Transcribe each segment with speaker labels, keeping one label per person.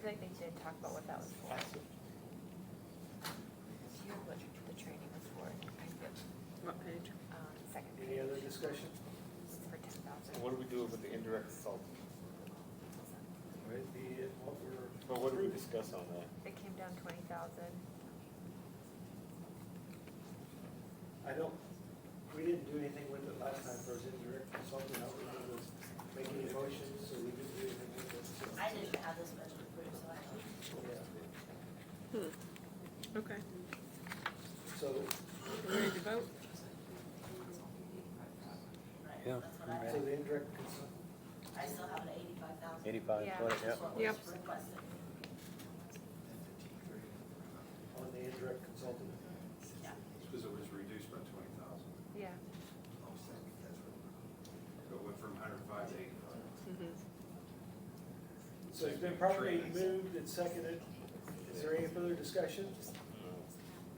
Speaker 1: feel like they did talk about what that was for. You know what the training was for, I feel,
Speaker 2: What page?
Speaker 1: um, second page,
Speaker 3: Any other discussion?
Speaker 1: it's for ten
Speaker 4: And
Speaker 1: thousand.
Speaker 4: what do we do with the indirect assault?
Speaker 3: Right, the, what we're.
Speaker 4: Well, what do we discuss on that?
Speaker 1: It came down twenty thousand,
Speaker 3: I don't, we didn't do anything with it last time, for was indirect consulting, I don't remember us making any motions, so we didn't do anything with it. so,
Speaker 5: I didn't have this budget approved, so I don't.
Speaker 3: yeah.
Speaker 2: Okay,
Speaker 3: So,
Speaker 2: we ready to vote?
Speaker 5: Right,
Speaker 6: Yeah,
Speaker 5: that's what I
Speaker 3: so
Speaker 5: have.
Speaker 3: the indirect consult,
Speaker 5: I still have an eighty-five thousand.
Speaker 6: Eighty-five,
Speaker 1: Yeah.
Speaker 6: twenty, yeah.
Speaker 5: That's what was
Speaker 2: Yep.
Speaker 5: requested.
Speaker 3: on the indirect consulting,
Speaker 5: Yeah.
Speaker 7: Because it was reduced by twenty thousand,
Speaker 1: yeah,
Speaker 7: so it went from hundred and five to eighty-five.
Speaker 2: Mm-hmm.
Speaker 3: so it's been properly moved and seconded, is there any further discussion?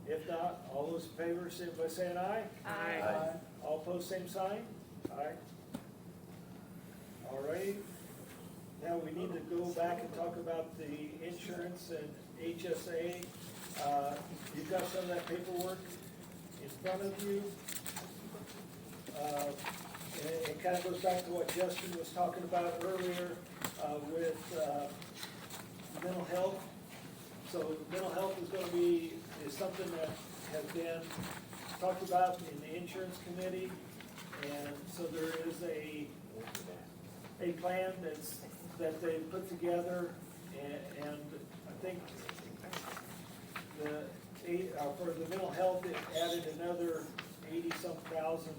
Speaker 3: If not, all those in favor, say by saying aye.
Speaker 2: Aye.
Speaker 3: All opposed, same sign? Aye. All right, now we need to go back and talk about the insurance and HSA. Uh, You've got some of that paperwork in front of you. Uh, And it- it kind of goes back to what Justin was talking about earlier uh, with uh, mental health. So mental health is gonna be, is something that has been talked about in the insurance committee. And so there is a, a plan that's, that they put together and, and I think the, eight- uh, for the mental health, it added another eighty-some thousand,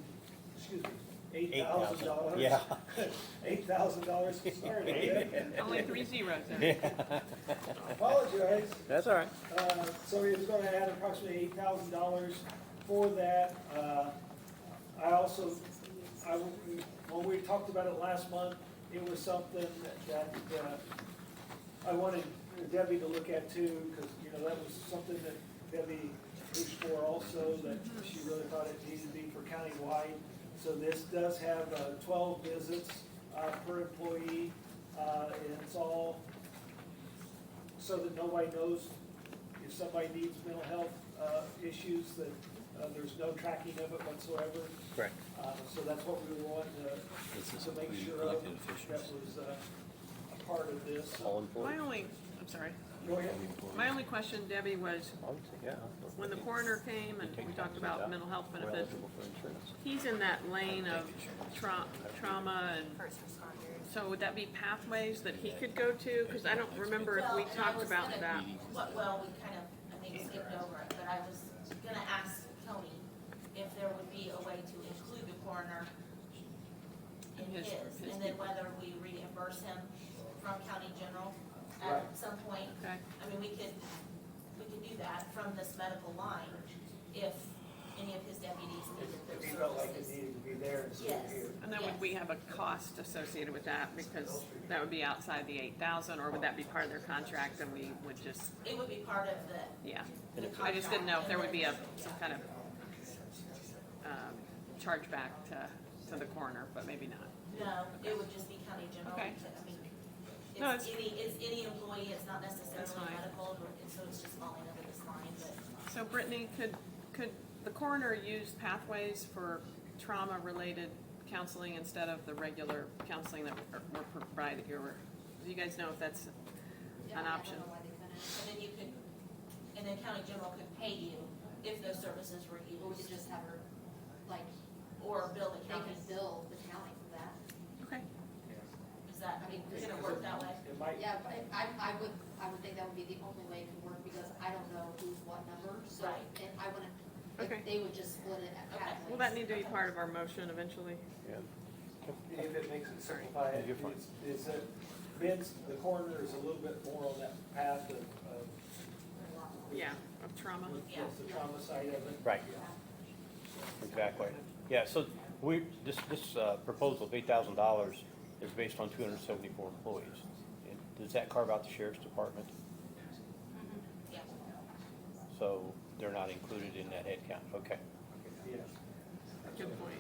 Speaker 3: excuse me, eight thousand dollars.
Speaker 6: Yeah.
Speaker 3: Eight thousand dollars, sorry, Dave.
Speaker 2: Only three zeros there.
Speaker 3: apologize.
Speaker 6: That's all right.
Speaker 3: Uh, So he was gonna add approximately eight thousand dollars for that. Uh, I also, I, when we talked about it last month, it was something that uh, I wanted Debbie to look at too, because, you know, that was something that Debbie pushed for also, that she really thought it needed to be for countywide. So this does have uh, twelve visits uh, per employee, uh, and it's all so that nobody knows if somebody needs mental health uh, issues, that uh, there's no tracking of it whatsoever.
Speaker 6: Correct.
Speaker 3: Uh, So that's what we were wanting
Speaker 6: This
Speaker 3: to,
Speaker 6: is
Speaker 3: to make
Speaker 6: the
Speaker 3: sure of,
Speaker 6: elected
Speaker 3: that
Speaker 6: officials.
Speaker 3: was uh, a part of this.
Speaker 6: All
Speaker 3: So-
Speaker 2: My
Speaker 6: employees.
Speaker 2: only, I'm sorry,
Speaker 3: Go ahead.
Speaker 2: my only question, Debbie, was
Speaker 6: Yeah.
Speaker 2: when the coroner came and we talked about mental health
Speaker 6: We're
Speaker 2: benefits,
Speaker 6: eligible for insurance.
Speaker 2: he's in that lane of tra- trauma and,
Speaker 1: first responders.
Speaker 2: so would that be pathways that he could go to? Cause I don't remember if we
Speaker 5: Well, and I
Speaker 2: talked
Speaker 5: was
Speaker 2: about
Speaker 5: gonna-
Speaker 2: that.
Speaker 5: What, well, we kind of, I think skipped over it, but I was gonna ask Tony if there would be a way to include the coroner in
Speaker 2: In his-
Speaker 5: his,
Speaker 2: his
Speaker 5: and then
Speaker 2: people.
Speaker 5: whether we reimburse him from county general
Speaker 3: Right.
Speaker 5: at some point.
Speaker 2: Okay,
Speaker 5: I mean, we could, we could do that from this medical line if any of his deputies needed
Speaker 3: If
Speaker 5: their
Speaker 3: you felt like it
Speaker 5: services.
Speaker 3: needed to be there instead of
Speaker 5: Yes.
Speaker 3: here.
Speaker 2: and then would we have a cost associated with that? Because that would be outside the eight thousand, or would that be part of their contract and we would just,
Speaker 5: It would be part of the,
Speaker 2: yeah?
Speaker 5: the
Speaker 2: I just didn't know if there would be a,
Speaker 5: contract.
Speaker 2: some kind of, um, chargeback to, to the coroner, but maybe not.
Speaker 5: No, it would just be county general.
Speaker 2: Okay.
Speaker 5: I mean,
Speaker 2: No,
Speaker 5: It's any, it's any employee, it's not
Speaker 2: That's
Speaker 5: necessarily
Speaker 2: fine.
Speaker 5: medical, or- and so it's just falling under this line, but
Speaker 2: So Brittany, could, could the coroner use pathways for trauma-related counseling instead of the regular counseling that we're provided here? Do you guys know if that's an option?
Speaker 5: And then you could, and then county general could pay you if those services were
Speaker 8: Or we could
Speaker 5: used,
Speaker 8: just have her, like,
Speaker 5: or bill the
Speaker 8: they
Speaker 5: county.
Speaker 8: could bill the county for that.
Speaker 2: Okay,
Speaker 5: Is that, I mean, is it gonna work that way?
Speaker 3: It might,
Speaker 8: Yeah, but I, I would, I would think that would be the only way it could work, because I don't know who's what number, so,
Speaker 5: Right.
Speaker 8: and I wouldn't,
Speaker 2: Okay.
Speaker 8: if they would just split it at
Speaker 5: Okay.
Speaker 8: halfway.
Speaker 2: will that need to be part of our motion eventually?
Speaker 6: Yeah.
Speaker 3: if it makes it simplify it,
Speaker 6: You're fine.
Speaker 3: is, is that Ben's, the coroner is a little bit more on that path of, of,
Speaker 2: Yeah, of trauma?
Speaker 3: with with the trauma side of it.
Speaker 6: Right. Exactly. Yeah, so we, this, this uh, proposal of eight thousand dollars is based on two hundred and seventy-four employees. And Does that carve out the sheriff's department?
Speaker 5: Yeah.
Speaker 6: So they're not included in that head count. Okay.
Speaker 3: Yeah.
Speaker 2: Good point.